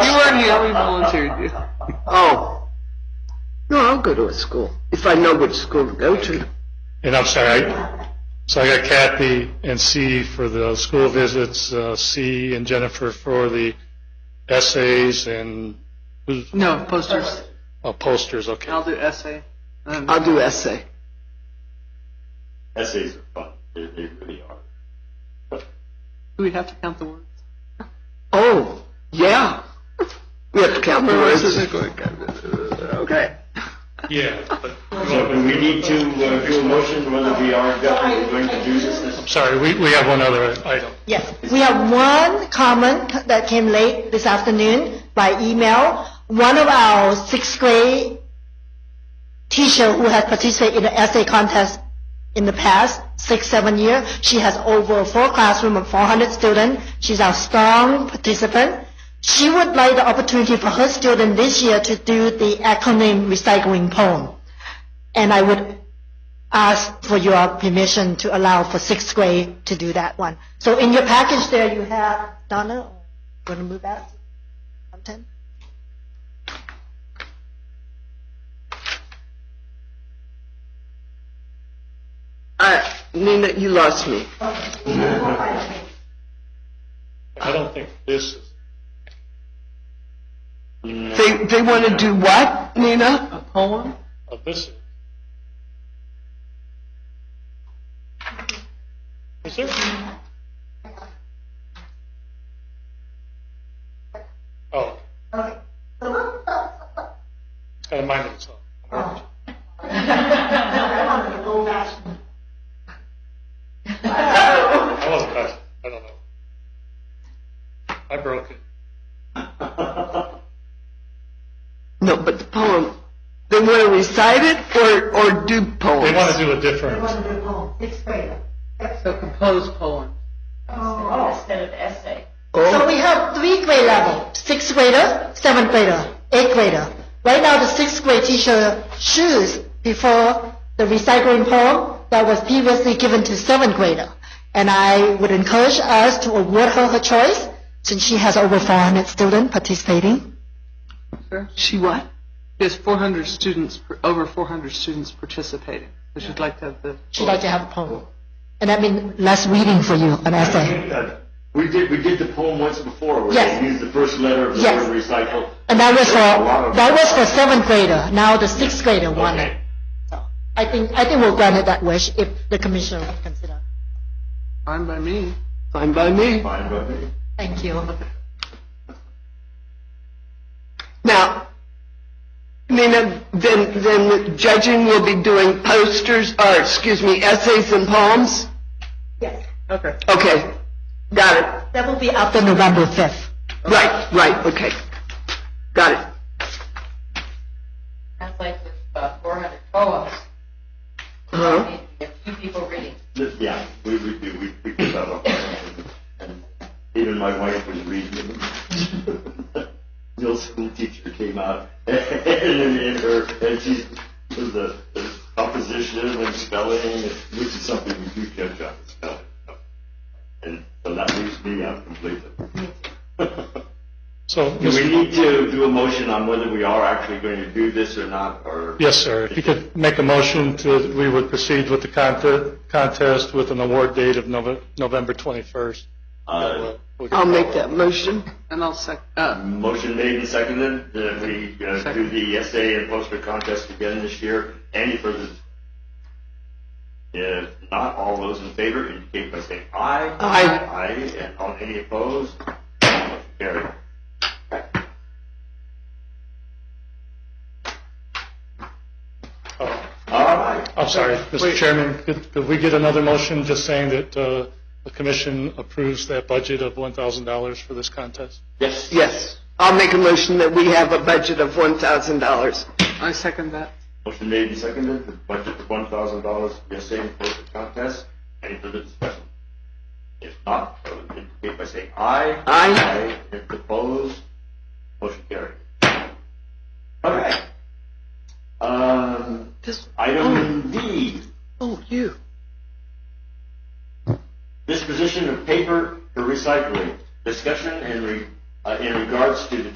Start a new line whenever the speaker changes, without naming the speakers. mean, how many volunteered you?
Oh. No, I'll go to a school, if I know which school to go to.
And I'm sorry, I, so I got Kathy and C for the school visits, uh, C and Jennifer for the essays and who's-
No, posters.
oh, posters, okay.
I'll do essay. Um,
I'll do essay.
Essays are fun. They, they really are.
do we have to count the words?
Oh, yeah. We have to count the words. Okay.
Yeah, but-
So do we need to uh, do a motion whether we are definitely going to do this this
I'm sorry, we, we have one other item.
Yes, we have one comment that came late this afternoon by email. One of our sixth grade teacher who has participated in the essay contest in the past six, seven years, she has over four classroom of 400 students. She's our strong participant. She would like the opportunity for her student this year to do the acronym recycling poem. And I would ask for your permission to allow for sixth grade to do that one. So in your package there, you have, Donna, going to move out? Content?
Uh, Nina, you lost me.
Oh, I don't think this is.
They, they want to do what, Nina?
A poem?
of this. Is there? Oh. It's got a mind of its own. I wasn't touching. I don't know. I broke it.
No, but the poem. They want to recite it or, or do poems?
They want to do a different,
So compose poem.
So we have three grade level, sixth grader, seventh grader, eighth grader. Right now, the sixth grade teacher choose before the recycling poem that was previously given to seventh grader. And I would encourage us to award her her choice since she has over 400 students participating.
She what?
There's 400 students, over 400 students participating. So she'd like to have the.
She'd like to have a poem. And that means less reading for you, an essay.
year? We did, we did the poem once before where
Yes.
they used the first letter of the
Yes.
word recycle.
And that was for, that was for seventh grader. Now the sixth grader won it.
Okay.
I think, I think we'll grant it that wish if the commissioner would consider.
Fine by me.
Fine by me.
Fine, but
Thank you.
Now, Nina, then, then judging will be doing posters, or excuse me, essays and poems?
Yes,
Okay.
Okay, got it.
that will be after November 5th.
Right, right, okay. Got it.
Sounds like uh, there's about 400 poems.
Uh-huh.
There are few people reading.
yeah, we, we do, we picked it up. And even my wife was reading it. The old school teacher came out and, and her, and she was the, the composition and spelling, which is something we do catch up with spelling. And so that leaves me out completely.
so,
Do we
Mr.
need to do a motion on whether we are actually going to do this or not, or?
Yes, sir. If you could make a motion to, we would proceed with the conte- contest with an award date of Nove- November 21st.
Uh,
I'll make that motion.
And I'll sec, uh,
Motion made and seconded that we uh, do the essay and poster contest again this year. Any further? If not, all those in favor indicate by saying aye.
Aye.
Aye, and all any opposed? Carried.
Oh,
All right.
I'm sorry, Mr. Chairman, could could we get another motion just saying that uh, the commission approves that budget of $1,000 for this contest?
Yes.
Yes, I'll make a motion that we have a budget of $1,000.
I second that.
Motion made and seconded, the budget of one thousand dollars for the essay and poster contest. Any further discussion? If not, I would indicate by saying aye.
Aye.
Aye, if opposed, motion carried. All right. Um,
This-
item D,
Oh, you.
disposition of paper for recycling. Discussion in re, uh, in regards to the